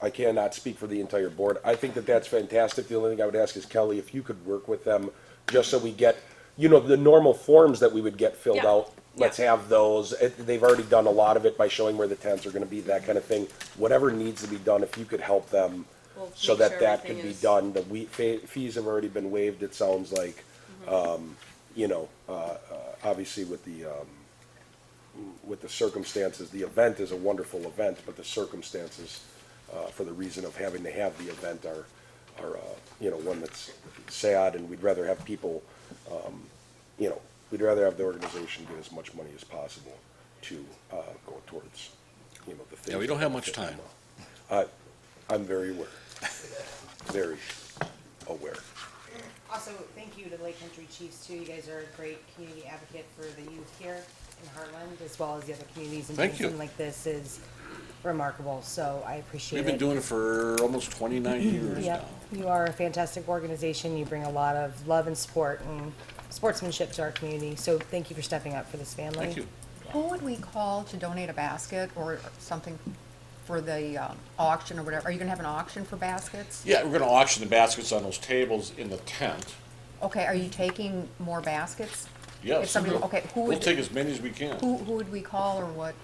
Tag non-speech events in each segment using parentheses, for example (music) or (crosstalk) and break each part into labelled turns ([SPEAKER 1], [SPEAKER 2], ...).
[SPEAKER 1] I cannot speak for the entire board. I think that that's fantastic. The only thing I would ask is Kelly, if you could work with them, just so we get, you know, the normal forms that we would get filled
[SPEAKER 2] Yeah.
[SPEAKER 1] out. Let's
[SPEAKER 2] Yeah.
[SPEAKER 1] have those. It- They've already done a lot of it by showing where the tents are gonna be, that kind of thing. Whatever needs to be done, if you could help them,
[SPEAKER 2] We'll
[SPEAKER 1] so
[SPEAKER 2] make
[SPEAKER 1] that
[SPEAKER 2] sure
[SPEAKER 1] that
[SPEAKER 2] everything
[SPEAKER 1] could be
[SPEAKER 2] is-
[SPEAKER 1] done. The we, fe- fees have already been waived, it sounds like.
[SPEAKER 2] Mm-hmm.
[SPEAKER 1] Um, you know, uh, uh, obviously with the, um, with the circumstances, the event is a wonderful event, but the circumstances, uh, for the reason of having to have the event are, are, uh, you know, one that's sad, and we'd rather have people, um, you know, we'd rather have the organization get as much money as possible to, uh, go towards, you know, the things.
[SPEAKER 3] Yeah, we don't
[SPEAKER 1] that
[SPEAKER 3] have much
[SPEAKER 1] benefit
[SPEAKER 3] time.
[SPEAKER 1] them. I, I'm very aware, very aware.
[SPEAKER 4] Also, thank you to Lake Country Chiefs too. You guys are a great community advocate for the youth here in Heartland, as well as the other communities. And
[SPEAKER 3] Thank
[SPEAKER 4] doing
[SPEAKER 3] you.
[SPEAKER 4] Something like this is remarkable, so I appreciate it.
[SPEAKER 3] We've been doing it for almost twenty-nine
[SPEAKER 5] Mm-hmm.
[SPEAKER 3] years now.
[SPEAKER 4] Yep, you are a fantastic organization. You bring a lot of love and support and sportsmanship to our community. So thank you for stepping up for this family.
[SPEAKER 3] Thank you.
[SPEAKER 5] Who would we call to donate a basket or something for the um, auction or whatever? Are you gonna have an auction for baskets?
[SPEAKER 3] Yeah, we're gonna auction the baskets on those tables in the tent.
[SPEAKER 5] Okay, are you taking more baskets? If
[SPEAKER 3] Yes.
[SPEAKER 5] somebody, okay, who
[SPEAKER 3] We'll
[SPEAKER 5] would,
[SPEAKER 3] take as many as we
[SPEAKER 5] who,
[SPEAKER 3] can.
[SPEAKER 5] who would we call or what?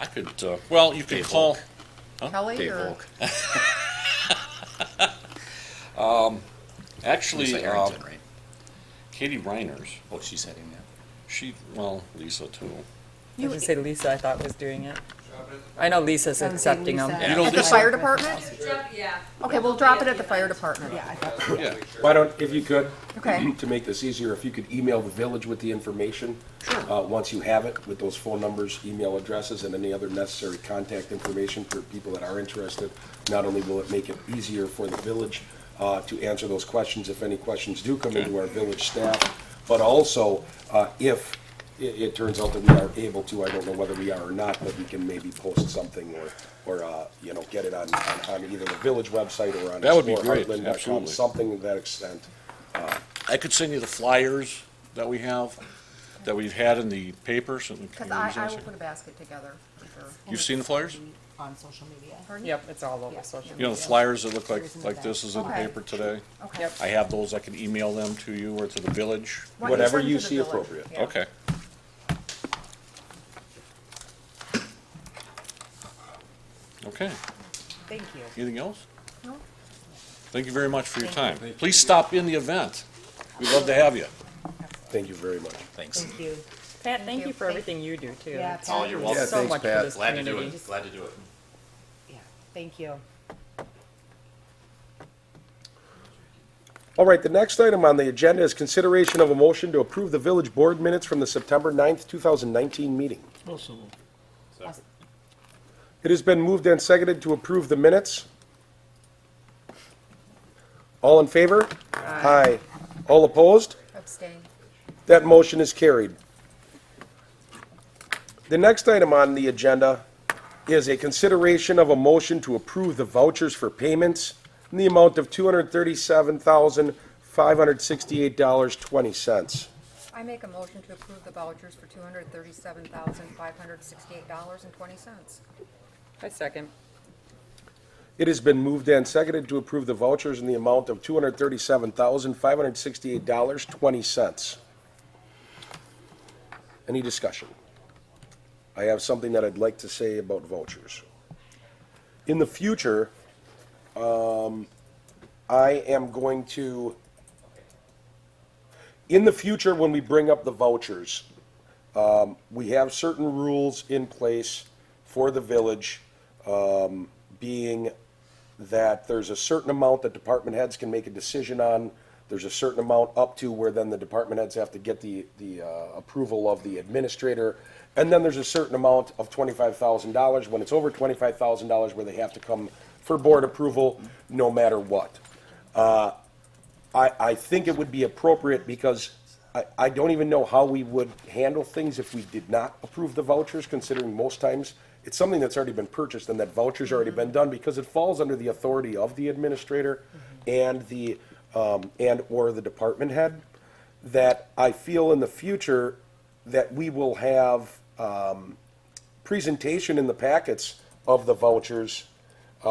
[SPEAKER 3] I could, uh, well, you could
[SPEAKER 6] Dave
[SPEAKER 3] call,
[SPEAKER 6] Volk.
[SPEAKER 5] Kelly
[SPEAKER 6] Dave
[SPEAKER 5] or?
[SPEAKER 6] Volk.
[SPEAKER 3] actually,
[SPEAKER 6] Lisa
[SPEAKER 3] uh,
[SPEAKER 6] Arrington, right?
[SPEAKER 3] Katie Reiners,
[SPEAKER 6] Oh, she's heading that.
[SPEAKER 3] she, well, Lisa too.
[SPEAKER 7] I was gonna say Lisa, I thought was doing it. I know Lisa's
[SPEAKER 4] I would say
[SPEAKER 7] accepting them.
[SPEAKER 4] Lisa.
[SPEAKER 3] You know,
[SPEAKER 5] At the
[SPEAKER 3] this-
[SPEAKER 5] fire department?
[SPEAKER 2] Drop- Yeah.
[SPEAKER 5] Okay, we'll drop it at the fire department.
[SPEAKER 4] Yeah, I thought
[SPEAKER 3] Yeah,
[SPEAKER 1] Why don't, if you could,
[SPEAKER 5] Okay.
[SPEAKER 1] (clears throat) to make this easier, if you could email the village with the information.
[SPEAKER 3] Sure.
[SPEAKER 1] Uh, once you have it, with those phone numbers, email addresses, and any other necessary contact information for people that are interested. Not only will it make it easier for the village, uh, to answer those questions, if any questions do come into our village staff, but also, uh, if it, it turns out that we are able to, I don't know whether we are or not, but we can maybe post something or, or, uh, you know, get it on, on, on either the village website or on
[SPEAKER 3] That would be
[SPEAKER 1] Explore
[SPEAKER 3] great,
[SPEAKER 1] Heartland.com,
[SPEAKER 3] absolutely.
[SPEAKER 1] Something to that extent.
[SPEAKER 3] I could send you the flyers that we have, that we've had in the papers. and the
[SPEAKER 5] Cause I,
[SPEAKER 3] communities
[SPEAKER 5] I
[SPEAKER 3] and
[SPEAKER 5] will
[SPEAKER 3] stuff.
[SPEAKER 5] put a basket together for sure.
[SPEAKER 3] You've seen the flyers?
[SPEAKER 4] on social media.
[SPEAKER 5] Pardon?
[SPEAKER 7] Yep, it's all over
[SPEAKER 4] Yeah.
[SPEAKER 7] social.
[SPEAKER 3] You know, the
[SPEAKER 7] media.
[SPEAKER 3] flyers that look like,
[SPEAKER 4] Here's in the
[SPEAKER 3] like
[SPEAKER 4] back.
[SPEAKER 3] this is in the
[SPEAKER 5] Okay.
[SPEAKER 3] paper today.
[SPEAKER 5] Okay.
[SPEAKER 7] Yep.
[SPEAKER 3] I have those, I can email them to you or to the village.
[SPEAKER 5] Why don't
[SPEAKER 1] Whatever
[SPEAKER 5] send
[SPEAKER 1] you
[SPEAKER 5] to the
[SPEAKER 1] see
[SPEAKER 5] village?
[SPEAKER 1] appropriate.
[SPEAKER 5] Yeah.
[SPEAKER 3] Okay. Okay,
[SPEAKER 4] Thank you.
[SPEAKER 3] anything else?
[SPEAKER 5] No.
[SPEAKER 3] Thank you very much for your time. Please stop in the event. We'd love to have you.
[SPEAKER 1] Thank you very much.
[SPEAKER 6] Thanks.
[SPEAKER 4] Thank you.
[SPEAKER 7] Pat, thank you for
[SPEAKER 5] Thank-
[SPEAKER 7] everything you do too.
[SPEAKER 4] Yeah,
[SPEAKER 6] Oh,
[SPEAKER 4] Pat,
[SPEAKER 6] you're
[SPEAKER 4] you-
[SPEAKER 6] welcome.
[SPEAKER 7] So much for this
[SPEAKER 6] Glad to do
[SPEAKER 7] community.
[SPEAKER 6] it. Glad to do it.
[SPEAKER 4] yeah, Thank you.
[SPEAKER 1] All right, the next item on the agenda is consideration of a motion to approve the village board minutes from the September 9th, 2019 meeting. It has been moved and seconded to approve the minutes. All in favor? Aye. All opposed?
[SPEAKER 5] Abstain.
[SPEAKER 1] That motion is carried. The next item on the agenda is a consideration of a motion to approve the vouchers for payments in the amount of $237,568.20.
[SPEAKER 5] I make a motion to approve the vouchers for two hundred thirty-seven thousand, five hundred sixty-eight dollars and twenty cents.
[SPEAKER 7] I second.
[SPEAKER 1] It has been moved and seconded to approve the vouchers in the amount of $237,568.20. Any discussion? I have something that I'd like to say about vouchers. In the future, um, I am going to, in the future, when we bring up the vouchers, um, we have certain rules in place for the village being that there's a certain amount that department heads can make a decision on. There's a certain amount up to where then the department heads have to get the, the uh, approval of the administrator. And then there's a certain amount of twenty-five thousand dollars, when it's over twenty-five thousand dollars, where they have to come for board approval, no matter what. I, I think it would be appropriate because I, I don't even know how we would handle things if we did not approve the vouchers, considering most times it's something that's already been purchased and that voucher's already been done because it falls under the authority of the administrator and the, um, and/or the department head. That I feel in the future that we will have, um, presentation in the packets of the vouchers